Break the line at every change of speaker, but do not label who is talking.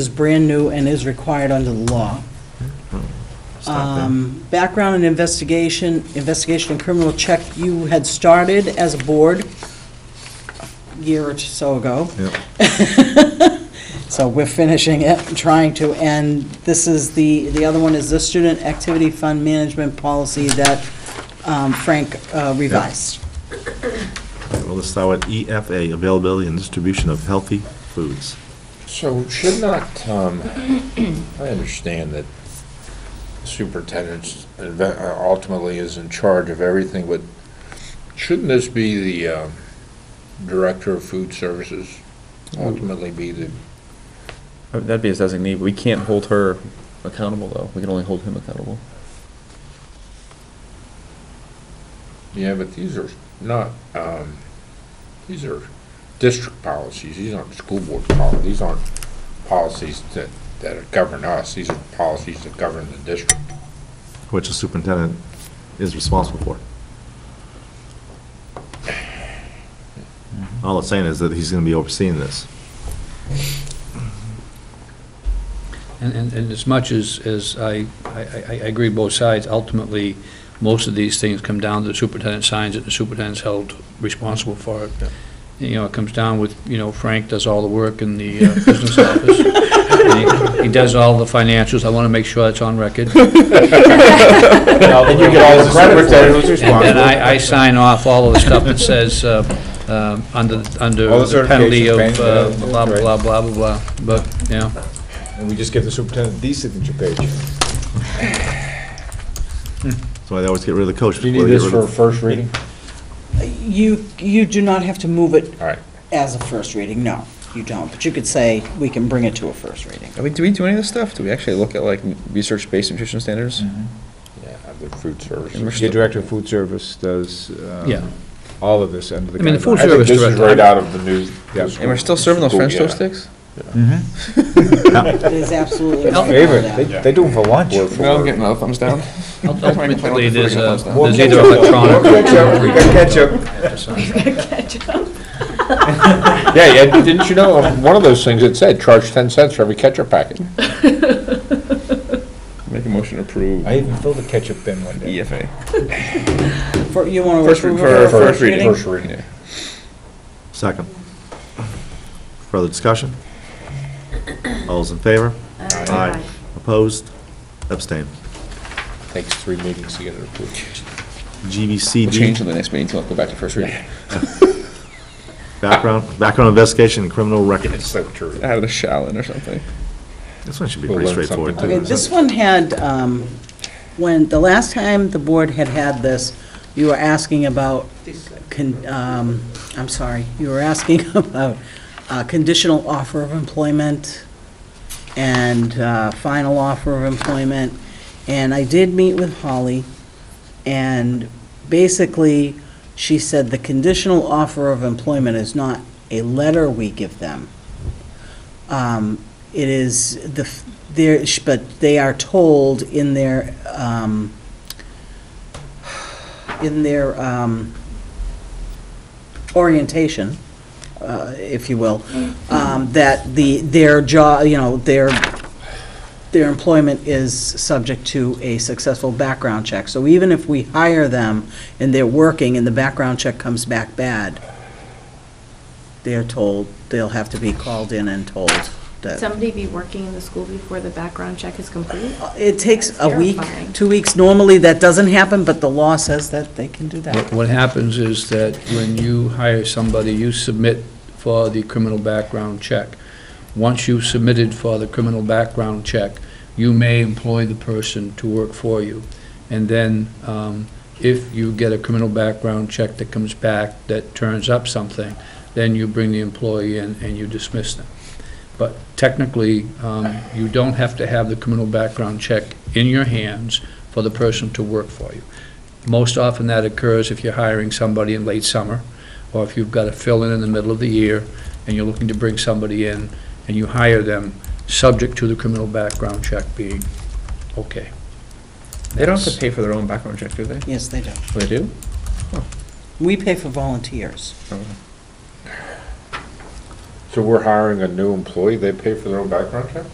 is brand new and is required under the law. Um, Background and investigation, investigation and criminal check, you had started as a board a year or so ago.
Yep.
So we're finishing it, trying to, and this is the, the other one is the Student Activity Fund Management Policy that um, Frank uh, revised.
Well, let's start with EFA, availability and distribution of healthy foods.
So should not, um, I understand that superintendent uh, ultimately is in charge of everything, but shouldn't this be the um, director of food services
Oh.
ultimately be the,
Uh, That'd be his designee, but we can't hold her accountable, though. We can only hold him accountable.
yeah, but these are not, um, these are district policies, these aren't school board policies, these aren't policies that, that govern us, these are policies that govern the district.
which the superintendent is responsible for. All it's saying is that he's going to be overseeing this.
And, and and as much as, as I, I, I- I agree both sides, ultimately, most of these things come down to the superintendent signs it, the superintendent's held responsible for it. You know, it comes down with, you know, Frank does all the work in the uh, business office. And he- He does all the financials, I want to make sure that's on record.
And you get all the credit
And then I, I sign off all of the stuff that says, uh, um, under, under
All the
the penalty of
certifications,
uh,
right,
blah,
right.
blah, blah, blah, blah, but, yeah.
And we just give the superintendent the signature page.
That's why they always get rid of the coach.
Do you
before
need
they get rid
this for a
of-
first reading?
You, you do not have to move it
All right.
as a first reading, no, you don't. But you could say, we can bring it to a first reading.
Do we, do we do any of this stuff? Do we actually look at like research-based nutrition standards?
Yeah, the food
And we're
services.
still-
The director of food service does um,
Yeah.
all of this under the
I mean, the food
I think
service
guidelines.
this is
director.
right out of the new.
Yeah.
And we're still serving those French toast sticks?
It is absolutely.
Al-
Favorite, they, they do them for lunch.
Word for word.
another thumbs down.
Ultimately, there's a,
More
there's either
ketchup.
electronic.
More ketchup, we got ketchup.
Yeah, yeah, didn't you know, on one of those things, it said, charge 10 cents for every ketchup packet.
Make a motion to approve E
I even filled a ketchup bin one day.
EFA.
For- You want to
First
approve it
re-
for a
for-
first reading?
First reading.
Second. Further discussion? All those in favor? Aye. Opposed? Abstained.
Takes three meetings to get it approved.
We'll change
GBCD,
to the next meeting until I go back to first reading.
background, background investigation and criminal
It's
records.
so true.
Out of the shall in or something.
This one should be
We'll
pretty
learn
straightforward,
something
Okay,
too.
today.
this one had, um, when, the last time the board had had this, you were asking about, con- um, I'm sorry, you were asking about uh, conditional offer of employment and uh, final offer of employment. And I did meet with Holly, and basically, she said the conditional offer of employment is not a letter we give them. Um, It is, the, f- there, sh- but they are told in their, um, in their um, orientation, uh, if you will, um, that the, their job, you know, their, their employment is subject to a successful background check. So even if we hire them and they're working and the background check comes back bad, they're told, they'll have to be called in and told that.
Somebody be working in the school before the background check is complete?
Uh, It takes a
That's
week,
terrifying.
two weeks. Normally, that doesn't happen, but the law says that they can do
What
that.
what happens is that when you hire somebody, you submit for the criminal background check. Once you've submitted for the criminal background check, you may employ the person to work for you. And then um, if you get a criminal background check that comes back that turns up something, then you bring the employee in and you dismiss them. But technically, um, you don't have to have the criminal background check in your hands for the person to work for you. Most often that occurs if you're hiring somebody in late summer, or if you've got a fill-in in the middle of the year, and you're looking to bring somebody in, and you hire them, subject to the criminal background check being okay.
They don't have to pay for their own background check, do they?
Yes, they do.
They do?
We pay for volunteers.
So we're hiring a new employee, they pay for their own background check?